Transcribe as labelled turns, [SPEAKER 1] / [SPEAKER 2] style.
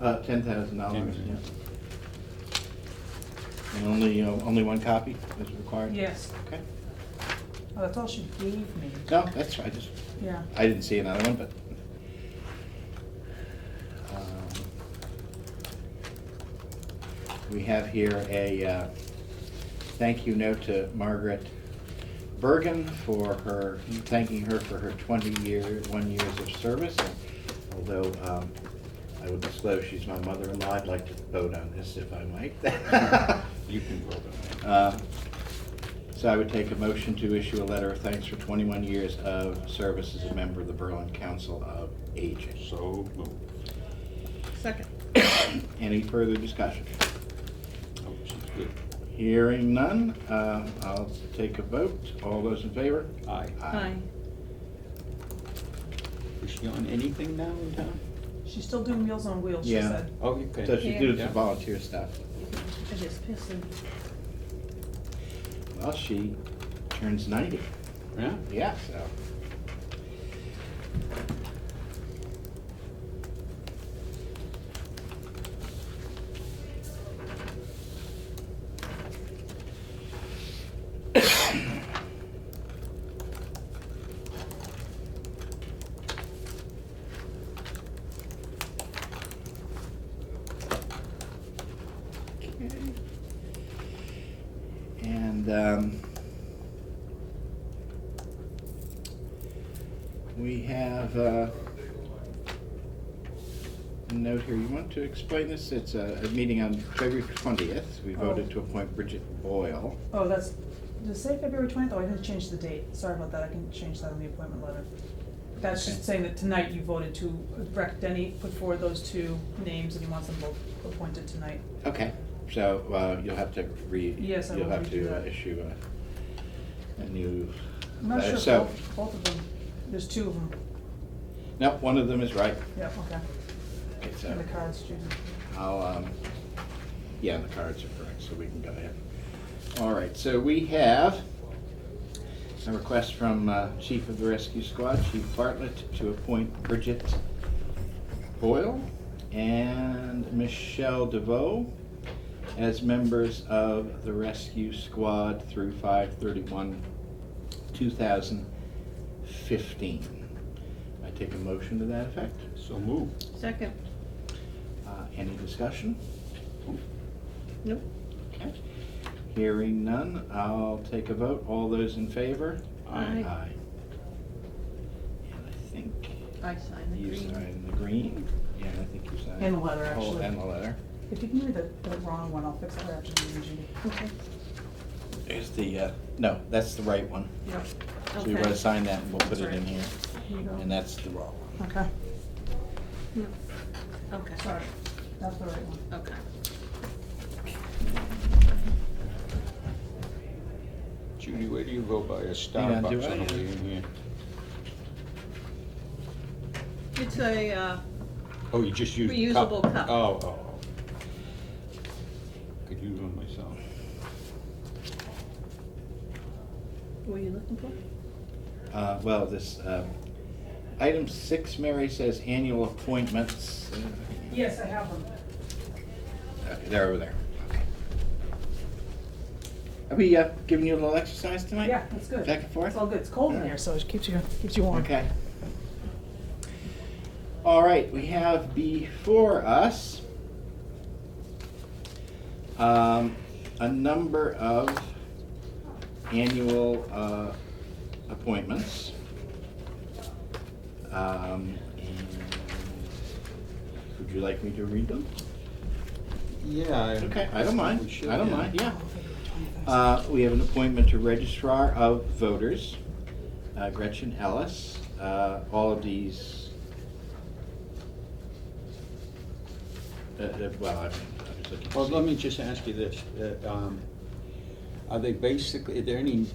[SPEAKER 1] Uh, ten thousand dollars,
[SPEAKER 2] $10,000.
[SPEAKER 1] yeah. And only, uh, only one copy is required?
[SPEAKER 3] Yes,
[SPEAKER 1] Okay.
[SPEAKER 3] well, Oh, that's all she gave me,
[SPEAKER 1] No, that's, I just,
[SPEAKER 3] yeah.
[SPEAKER 1] I didn't see another one, but. um, We have here a uh, thank you note to Margaret Bergen for her, thanking her for her twenty-year, one years of service. And Although um, I will disclose she's my mother-in-law, I'd like to vote on this if I might.
[SPEAKER 2] You can vote on that.
[SPEAKER 1] Uh, So I would take a motion to issue a letter of thanks for 21 years of service as a member of the Berlin Council of Aging.
[SPEAKER 2] So moved.
[SPEAKER 3] Second.
[SPEAKER 1] Any further discussion?
[SPEAKER 2] Oh, she's good.
[SPEAKER 1] Hearing none, uh, I'll take a vote. All those in favor?
[SPEAKER 2] Aye.
[SPEAKER 3] Hi.
[SPEAKER 2] Is she on anything now in town?
[SPEAKER 3] She's still doing Meals on Wheels, she
[SPEAKER 1] Yeah.
[SPEAKER 3] said.
[SPEAKER 2] Oh, okay.
[SPEAKER 1] So she
[SPEAKER 4] Yeah.
[SPEAKER 1] did some
[SPEAKER 2] Yeah.
[SPEAKER 1] volunteer stuff.
[SPEAKER 4] I just pissed him.
[SPEAKER 1] Well, she turns 90.
[SPEAKER 2] Yeah?
[SPEAKER 1] Yeah, so. And, um, We have uh, a note here. You want to explain this? It's a, a meeting on February twentieth. We voted
[SPEAKER 3] Oh.
[SPEAKER 1] to appoint Bridget Boyle.
[SPEAKER 3] Oh, that's, did it say February twentieth? Oh, I didn't change the date. Sorry about that. I can change that on the appointment letter. That's
[SPEAKER 1] Okay.
[SPEAKER 3] just saying that tonight you voted to, Rec Denny put forward those two names and he wants them both appointed tonight.
[SPEAKER 1] Okay. So uh, you'll have to re.
[SPEAKER 3] Yes, I
[SPEAKER 1] You'll
[SPEAKER 3] will
[SPEAKER 1] have
[SPEAKER 3] redo
[SPEAKER 1] to uh,
[SPEAKER 3] that.
[SPEAKER 1] issue a, a new.
[SPEAKER 3] I'm not
[SPEAKER 1] letter.
[SPEAKER 3] sure
[SPEAKER 1] Uh,
[SPEAKER 3] if
[SPEAKER 1] So,
[SPEAKER 3] both, both of them, there's two of them.
[SPEAKER 1] no, one of them is right. uh,
[SPEAKER 3] Yeah, okay.
[SPEAKER 1] Okay,
[SPEAKER 3] And
[SPEAKER 1] so
[SPEAKER 3] the cards, Judy.
[SPEAKER 1] I'll, um, yeah, the cards are correct, so we can go ahead. All right, so we have a request from uh, Chief of the Rescue Squad, Chief Bartlett, to appoint Bridget Boyle and Michelle DeVoe as members of the Rescue Squad through 5/31, 2015. I take a motion to that effect.
[SPEAKER 2] So moved.
[SPEAKER 4] Second.
[SPEAKER 1] Uh, Any discussion?
[SPEAKER 4] Nope.
[SPEAKER 1] Okay. Hearing none, I'll take a vote. All those in favor?
[SPEAKER 2] Aye.
[SPEAKER 4] Aye.
[SPEAKER 1] And I think
[SPEAKER 4] I signed the
[SPEAKER 1] you
[SPEAKER 4] green.
[SPEAKER 1] signed the green, Yeah, I think you signed.
[SPEAKER 3] And the letter,
[SPEAKER 1] the whole-
[SPEAKER 3] actually.
[SPEAKER 1] And the letter.
[SPEAKER 3] If you can read the, the wrong one, I'll fix it right after you, Judy.
[SPEAKER 4] Okay.
[SPEAKER 1] There's the, uh, no, that's the right one.
[SPEAKER 3] Yep.
[SPEAKER 1] So you
[SPEAKER 4] Okay.
[SPEAKER 1] want to sign that and we'll put
[SPEAKER 4] That's
[SPEAKER 1] it in
[SPEAKER 4] right.
[SPEAKER 1] here.
[SPEAKER 3] Here you go.
[SPEAKER 1] And that's the wrong one.
[SPEAKER 3] Okay,
[SPEAKER 4] No. Okay.
[SPEAKER 3] sorry. That's the right one.
[SPEAKER 4] Okay.
[SPEAKER 2] Judy, where do you go buy a
[SPEAKER 1] Hang on, do
[SPEAKER 2] Starbucks on
[SPEAKER 1] I-
[SPEAKER 2] the way in here?
[SPEAKER 4] It's a, uh,
[SPEAKER 2] Oh, you just use the cup?
[SPEAKER 4] Reusable cup.
[SPEAKER 2] Oh, oh, oh. Could use one myself.
[SPEAKER 4] what are you looking for?
[SPEAKER 1] Uh, well, this, uh, item six, Mary says annual appointments.
[SPEAKER 3] Yes, I have them.
[SPEAKER 1] Okay, they're over there. Okay. Are we, uh, giving you a little exercise tonight?
[SPEAKER 3] Yeah, that's good.
[SPEAKER 1] Back and forth?
[SPEAKER 3] It's all good. It's cold in
[SPEAKER 1] Yeah.
[SPEAKER 3] here, so it keeps you, keeps you warm.
[SPEAKER 1] Okay. All right, we have before us um, a number of annual uh, appointments. Um, and Would you like me to read them?
[SPEAKER 2] Yeah.
[SPEAKER 1] Okay, I don't mind,
[SPEAKER 2] We should,
[SPEAKER 1] I don't mind, yeah. Uh, We have an appointment to Registrar of Voters, uh, Gretchen Ellis. Uh, All of these, uh, uh, well, I I was looking. to
[SPEAKER 2] Well,
[SPEAKER 1] see.
[SPEAKER 2] let me just ask you this, uh, um, are they basically, are there any